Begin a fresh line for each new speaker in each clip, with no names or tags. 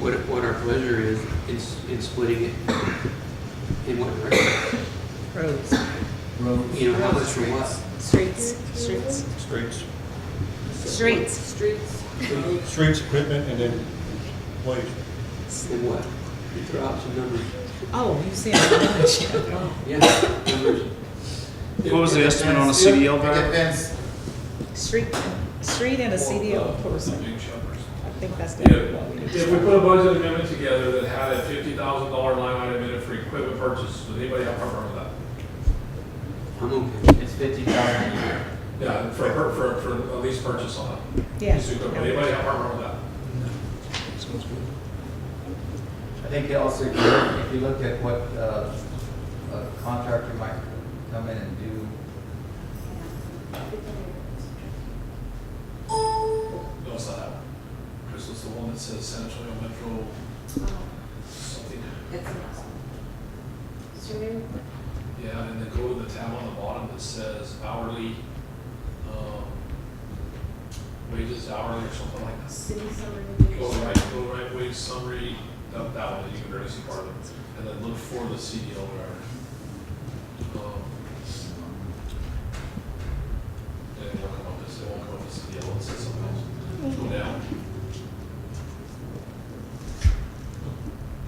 what, what our pleasure is in, s- in splitting it in what direction.
Roads.
You know, how much for what?
Streets. Streets.
Streets,
Streets.
Streets.
streets, equipment, and then waste.
And what? You throw out some numbers.
Oh, you see, I know
Yeah, numbers.
What was the estimate on a
It
CDL
depends-
driver?
It
it. Street, street and a CDL person. I think that's
Yeah,
definitely what we need.
if we put a budget amendment together that had a fifty thousand dollar line item in it for equipment purchase, would anybody have a problem with that?
I'm okay.
depends, it's fifty thousand a year.
Yeah, for, for, for, for a lease purchase on it. Lease equipment.
Yeah.
Anybody have a problem with that?
I think they also, if you look- if you look at what uh, a contractor might come in and do,
No, it's not that one. Chris was the one that says San Antonio Metro something. Yeah, and then go to the tab on the bottom that says hourly, um, wages hourly or something like that.
City summer
Go
vacation.
right, go right wage summary, that, that one, that you can barely see part of it, and then look for the CDL driver. Um, Yeah, it won't come up, this, it won't come up as CDL, it says something else. Go down.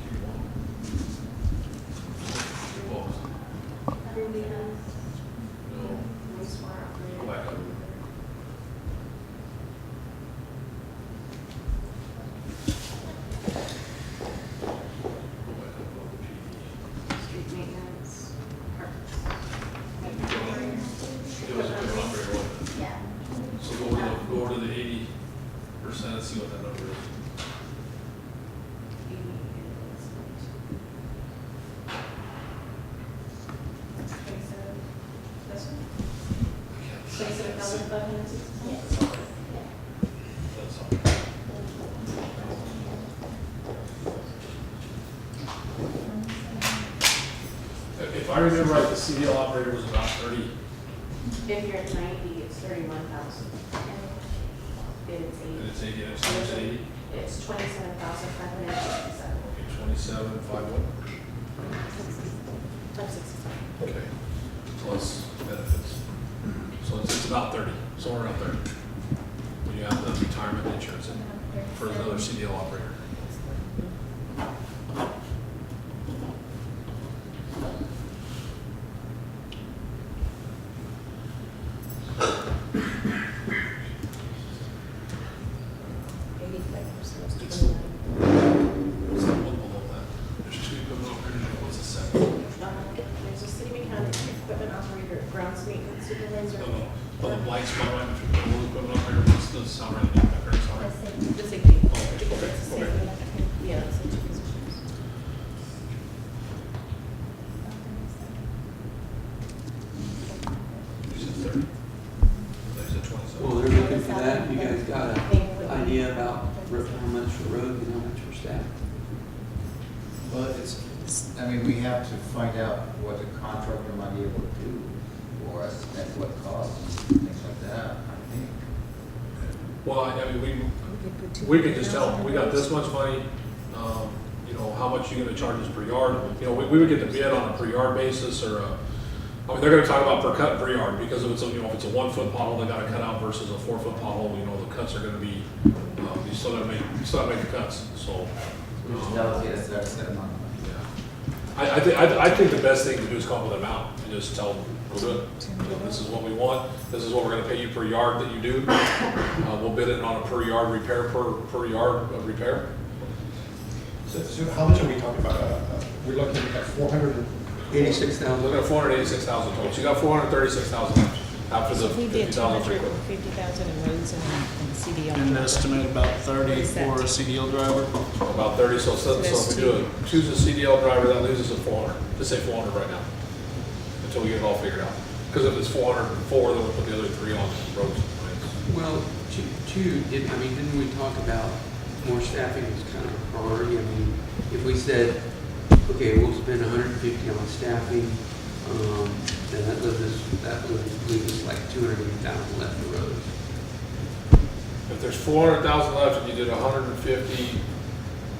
Keep going. Keep going. No, go back up. Go back up, go to PD.
Street maintenance.
It was a good one, very well.
Yeah.
So go over, the- go over to the eighty percent and see what that number is.
Twenty-seven thousand five hundred sixty?
That's all. If- If I remember right, the CDL operator was about thirty,
If you're at ninety, it's thirty-one thousand. It's
and
eighty,
it's eighty, and it's times eighty,
it's twenty-seven thousand five hundred sixty-seven.
okay, twenty-seven, five one.
Five sixty-seven.
Okay. Plus benefits. So it's, it's about thirty, somewhere around thirty. When you have the retirement insurance in for another CDL operator.
Eighty-five percent of students.
Is that one below that? There's two equipment operators, and what's the second?
Um, There's a city mechanic, equipment operator, grounds maintenance supervisor.
No, no, well, the blind spot line between the little equipment operator, what's the salary, and the background salary?
The safety.
Okay, okay,
It's the same.
okay.
Yeah, it's the two positions.
You said thirty. I said
Well,
twenty-seven.
they're looking for that. You guys got an idea about ro- how much for road and how much for staff?
well, it's, I mean, we have to find out what the contractor might be able to do for us, at what cost, and things like that, I think.
Well, I I mean, we,
We could put two
we could just tell,
thousand.
we got this much money, um, you know, how much you gonna charge us per yard? You know, we, we would get the bid on a per yard basis or a, I mean, they're gonna talk about per cut per yard because if it's, a you know, if it's a one-foot pothole they gotta cut out versus a four-foot pothole, you know, the cuts are gonna be, um, you still gotta make, you still gotta make the cuts, so.
We
um,
should allocate a certain set amount of money.
Yeah, I, I think, I, I think the best thing to do is come up with an amount and just tell them, we'll do it. You know, This is what we want, this is what we're gonna pay you per yard that you do. Uh, we'll bid it on a per yard repair, per, per yard of repair.
So, so how much are we talking about? Uh, uh, We're looking at four hundred and
Eighty-six
I'm
thousand.
looking at four hundred eighty-six thousand total, so you got four hundred thirty-six thousand after the
We
fifty
did two
thousand for
hundred
equipment.
fifty thousand in roads and and CDL.
And an estimate about thirty for a CDL driver?
About thirty, so, so so if we do a, choose a CDL driver, that leaves us at four hundred, just say four hundred right now. Until we get it all figured out, because if it's four hundred and four, then we'll put the other three on roads. and lanes.
Well, two, two, didn't, I mean, didn't we talk about more staffing is kind of a priority? I mean, if we said, okay, we'll spend hundred and fifty on staffing, um, then that leaves us, that would leave us like two hundred and eighty thousand left for roads.
If there's four hundred thousand left and you did hundred and fifty